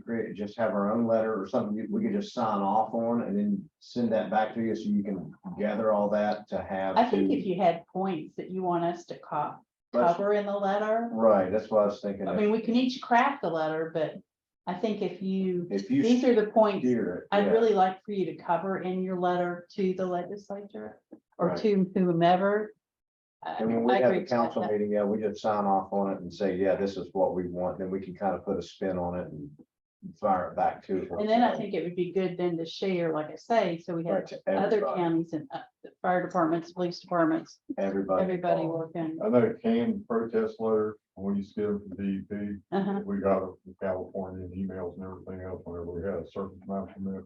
create, just have our own letter or something you- we could just sign off on and then send that back to you so you can gather all that to have. I think to- if you had points that you want us to co- That's- cover in the letter, Right, that's what I was thinking. I mean, we can each craft the letter, but I think if you, If you these are the points steer it. I'd yeah. really like for you to cover in your letter to the legislature or Right. to whomever. I- And when we I have agree a with council that. meeting, yeah, we just sign off on it and say, yeah, this is what we want, then we can kind of put a spin on it and fire it back to. it. And then I think it would be good then to share, like I say, so we Right, have to other everybody, counties and uh, the fire departments, police departments, Everybody. everybody involved. working. I know canned protest letter, when you see them from DEP, Uh-huh. E we got it from California and emails and everything else whenever we had a surface mine permit.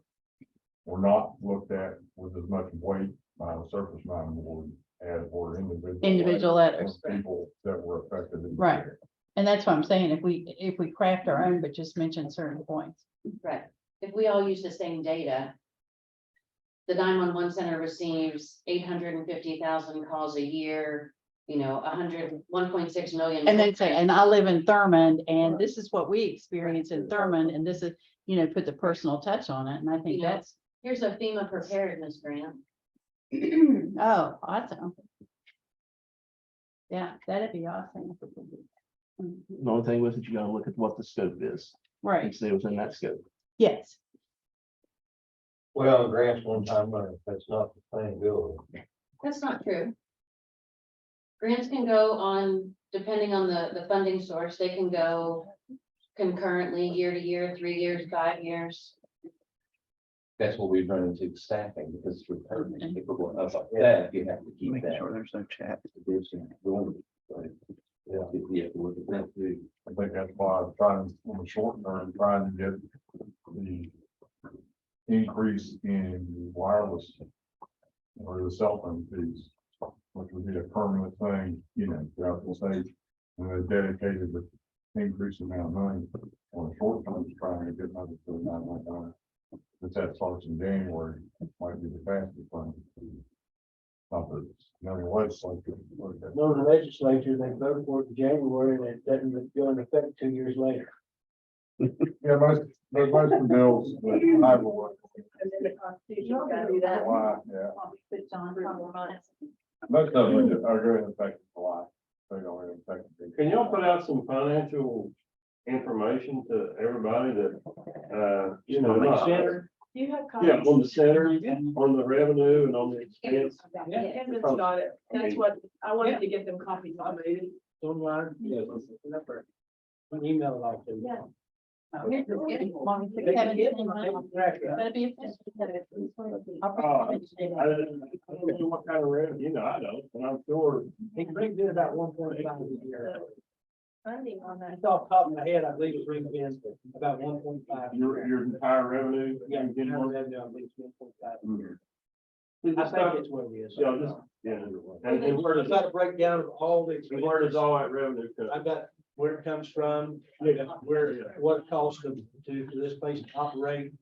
Were not looked at with as much weight by the surface mine board as were individual. Individual letters, of People that were affected. in the Right. area. And that's what I'm saying, if we, if we craft our own, but just mention certain points. Right, if we all use the same data. The nine-one-one center receives eight hundred and fifty thousand calls a year, you know, a hundred, one point six million. And then say, and I live in Thurmond and this is what we experience in Thurmond and this is, you know, put the personal touch on it. And I think Yeah. that's, Here's a FEMA preparedness grant, oh, awesome. Yeah, that'd be awesome. Mhm. The only thing was that you gotta look at what the scope is, Right, each day was in that scope. yes. Well, grants one time money, that's not the thing, Bill. that's not true. Grants can go on, depending on the, the funding source, they can go concurrently, year to year, three years, five years. That's what we run into with staffing because it's recurring, people go up like that, you have to keep Making that. sure there's no chat. division going, but, Yeah, yeah, we're gonna have to. I think that's why I'm trying, on the short term, trying to get the increase in wireless or the cell phone fees, which would be a permanent thing, you know, throughout the state. And they're dedicated with increased amount of money on the short term, to trying to get another to nine one nine. But that starts in January, might be the fastest one. Not that it's, not in legislature, but that's- No, the legislature, they voted for it in January and it doesn't go into effect two years later. Yeah, most, there's most of the bills, but I will. July, yeah, most of them are going to affect July. They don't really affect. Can y'all put out some financial information to everybody that, uh, you know, not- Do you have yeah, copies? on the center, on the revenue and on the expense? Evan's got it. That's what, I wanted to get them copies. I mean, Online, yes, remember. An email like that. Yeah. That'd be efficient. I'll Uh, probably say I that. don't I don't know what kind of revenue, you know, I don't, and I'm sure. He brings in about one point five a year. Funding on that. It's off the top of my head, I believe it's ring in about one point five. Your, your entire revenue. you Yeah, can get general more- revenue, I believe it's one point five. I think Yeah, it's what it is. just, yeah, and, and where does, I've got a breakdown of all the. and where does all that revenue come? I've got where it comes from, where, what it costs them to, for this place to operate.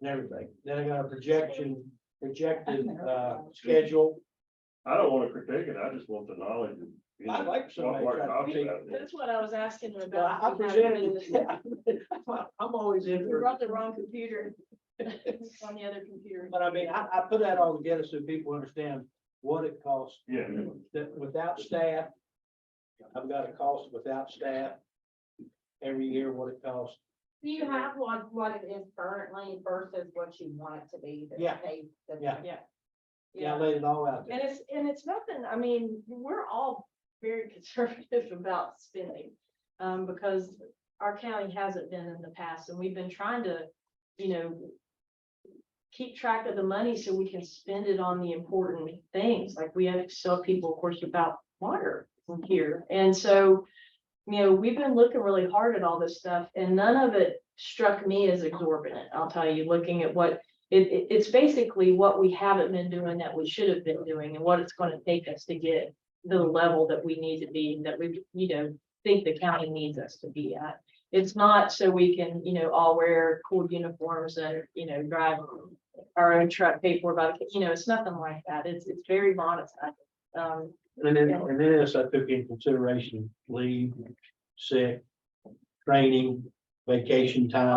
And everything. Then I got a projection, projected, uh, schedule. I don't wanna critique it, I just want the knowledge. and, you I'd know, like somebody what- what to try to costs think- about it. That's what I was asking her Well, about. I I We haven't presented been it. discussing. I'm always in, We for- brought the wrong computer. It's On the other computer. but I mean, I, I put that all together so people understand what it costs Yeah. that without staff. I've got a cost without staff. Every year, what it costs. Do you have what, what it is currently versus what you want it to be? that Yeah. they- that- Yeah. Yeah. Yeah, I laid it all out there. And it's, and it's nothing, I mean, we're all very conservative about spending. Um, because our county hasn't been in the past and we've been trying to, you know. Keep track of the money so we can spend it on the important things, like we have to tell people, of course, about water from here. And so, you know, we've been looking really hard at all this stuff and none of it struck me as exorbitant. I'll tell you, looking at what it, it- it's basically what we haven't been doing that we should have been doing and what it's gonna take us to get the level that we need to be, that we, you know, think the county needs us to be at. It's not so we can, you know, all wear cool uniforms and, you know, drive our own truck, pay for it by the you know, it's nothing like that. It's, it's very modest. Um, And then, and then as I took into consideration leave, sick, training, vacation time.